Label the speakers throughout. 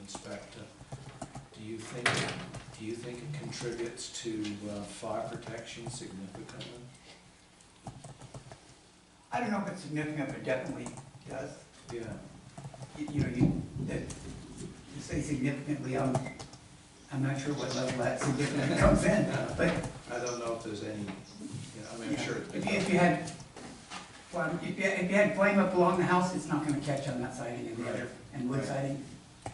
Speaker 1: inspector, do you think, do you think it contributes to uh, fire protection significantly?
Speaker 2: I don't know if it's significant, but definitely does.
Speaker 1: Yeah,
Speaker 2: You you know, you, that, you say significantly, I'm, I'm not sure what level that significant comes in, but,
Speaker 1: I don't know if there's any, you know, I mean, I'm sure. it's-
Speaker 2: if you, if you had, well, if you, if you had flame up along the house, it's not gonna catch on that siding and the other, and wood
Speaker 1: Right.
Speaker 2: siding,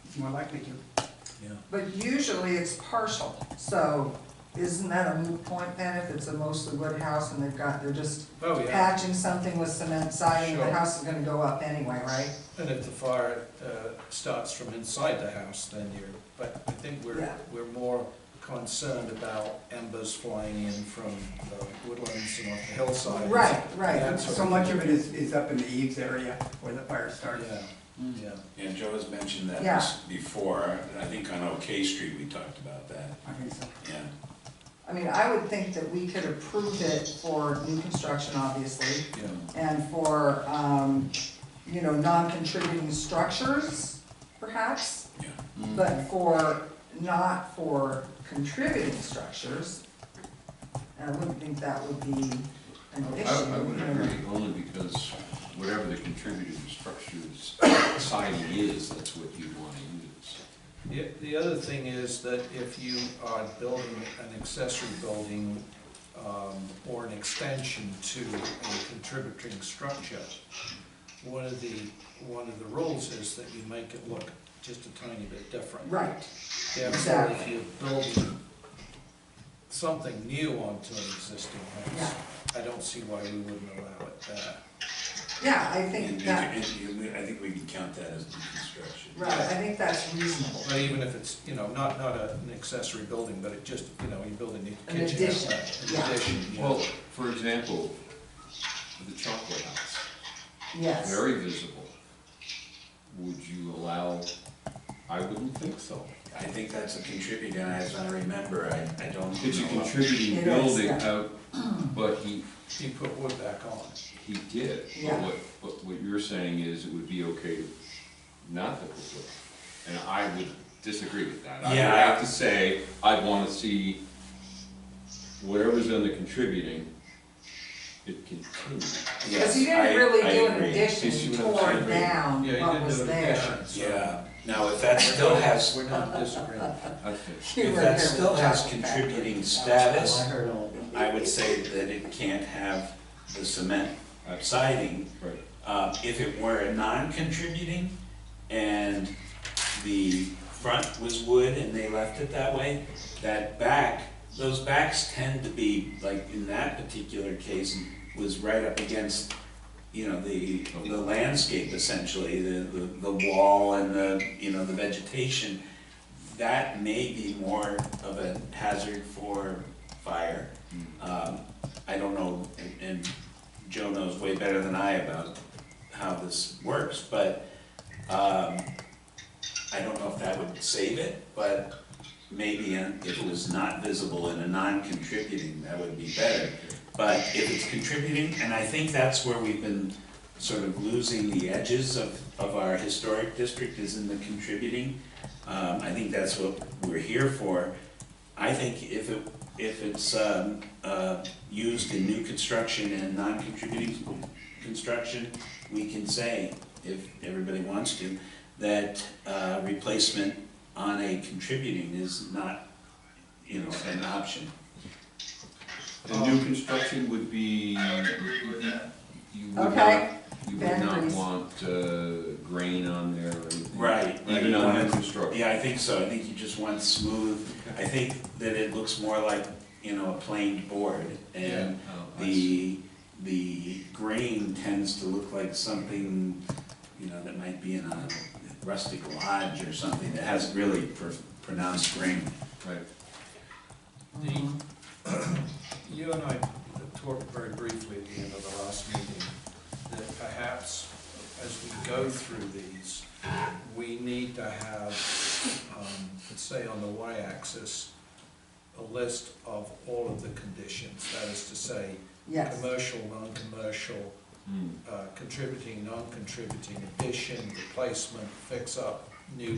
Speaker 2: it's more likely to.
Speaker 1: Yeah,
Speaker 3: But usually it's partial, so isn't that a moot point then if it's a mostly wood house and they've got, they're just
Speaker 1: oh, yeah,
Speaker 3: patching something with cement siding, the
Speaker 1: Sure.
Speaker 3: house is gonna go up anyway, right?
Speaker 1: and if the fire uh, starts from inside the house, then you're, but I think we're,
Speaker 3: Yeah.
Speaker 1: we're more concerned about embers flying in from the woodlands and off the hillside.
Speaker 3: Right, right.
Speaker 1: Yeah. That's
Speaker 2: So
Speaker 1: right.
Speaker 2: much of it is, is up in the eaves area where the fire started.
Speaker 1: Yeah, yeah.
Speaker 4: And Joe has mentioned that
Speaker 3: Yeah.
Speaker 4: this before, and I think on OK Street, we talked about that,
Speaker 2: I think so.
Speaker 4: yeah.
Speaker 3: I mean, I would think that we could approve it for new construction, obviously,
Speaker 1: Yeah,
Speaker 3: and for, um, you know, non-contributing structures, perhaps.
Speaker 4: Yeah.
Speaker 3: But for, not for contributing structures, I wouldn't think that would be an
Speaker 5: I-
Speaker 3: issue.
Speaker 5: I, I would
Speaker 3: you know.
Speaker 5: agree, only because whatever the contributing structures siding is, that's what you want to use.
Speaker 1: The- The other thing is that if you are building an accessory building um, or an extension to a contributing structure, one of the, one of the rules is that you make it look just a tiny bit different.
Speaker 3: Right,
Speaker 1: Therefore, if
Speaker 3: exactly.
Speaker 1: you're building something new onto an existing house, I don't see why we wouldn't allow it there.
Speaker 3: yeah, I
Speaker 4: And,
Speaker 3: think that,
Speaker 4: and, and we- I think we can count that as deconstruction.
Speaker 3: right, I think that's reasonable.
Speaker 1: But even if it's, you know, not, not a- an accessory building, but it just, you know, you're building a
Speaker 3: An
Speaker 1: kitchen.
Speaker 3: addition,
Speaker 1: outlet, an
Speaker 3: yeah.
Speaker 1: addition, yeah.
Speaker 5: Well, for example, the chocolate house,
Speaker 3: Yes,
Speaker 5: very visible. Would you allow, I wouldn't think so.
Speaker 4: I think that's a contributing, as I remember, I, I don't.
Speaker 5: It's a
Speaker 4: know.
Speaker 3: It is,
Speaker 5: contributing building
Speaker 3: yeah.
Speaker 5: out, but he,
Speaker 1: He put wood back on.
Speaker 5: he did. But
Speaker 3: Yeah.
Speaker 5: what, but what you're saying is it would be okay not to put wood. And I would disagree with that. I would
Speaker 4: Yeah.
Speaker 5: have to say, I'd wanna see whatever's in the contributing, it continue.
Speaker 3: because you
Speaker 4: Yes, I-
Speaker 3: didn't really
Speaker 4: I
Speaker 3: do an
Speaker 4: agree.
Speaker 3: addition,
Speaker 5: You see
Speaker 3: you
Speaker 5: what I'm
Speaker 3: tore
Speaker 5: saying?
Speaker 3: down what was there.
Speaker 4: Yeah, now if that still has,
Speaker 1: We're not disagreeing.
Speaker 5: That's it.
Speaker 3: You
Speaker 4: if
Speaker 3: were
Speaker 4: that
Speaker 3: here
Speaker 4: still
Speaker 3: with
Speaker 4: has
Speaker 3: that back.
Speaker 4: contributing status,
Speaker 1: heard all.
Speaker 4: I would say that it can't have the cement uh, siding
Speaker 5: Right.
Speaker 4: Uh, If it were a non-contributing and the front was wood and they left it that way, that back, those backs tend to be, like in that particular case, was right up against, you know, the, the landscape essentially, the, the, the wall and the, you know, the vegetation. That may be more of a hazard for fire. Um, I don't know, and- and Joe knows way better than I about how this works, but, um, I don't know if that would save it, but maybe in- if it was not visible and a non-contributing, that would be better. But if it's contributing, and I think that's where we've been sort of losing the edges of, of our historic district is in the contributing. Um, I think that's what we're here for. I think if it, if it's, um, uh, used in new construction and non-contributing construction, we can say, if everybody wants to, that, uh, replacement on a contributing is not, you know, an option.
Speaker 5: The new construction would be. I would
Speaker 6: agree with that.
Speaker 5: You would not,
Speaker 3: Okay.
Speaker 5: you would
Speaker 3: Ben
Speaker 5: not
Speaker 3: agrees.
Speaker 5: want uh, grain on there or anything.
Speaker 4: Right, right.
Speaker 5: Even on new construction.
Speaker 4: Yeah, I think so, I think you just want smooth, I think that it looks more like, you know, a planed board, and
Speaker 5: Oh, I see.
Speaker 4: the, the grain tends to look like something, you know, that might be in a rustic lodge or something that has really pr- pronounced grain.
Speaker 5: Right.
Speaker 1: You and I talked very briefly at the end of the last meeting, that perhaps as we go through these, we need to have, um, let's say on the y-axis, a list of all of the conditions, that is to say,
Speaker 3: Yes.
Speaker 1: commercial, non-commercial,
Speaker 5: Hmm.
Speaker 1: uh, contributing, non-contributing, addition, replacement, fix-up, new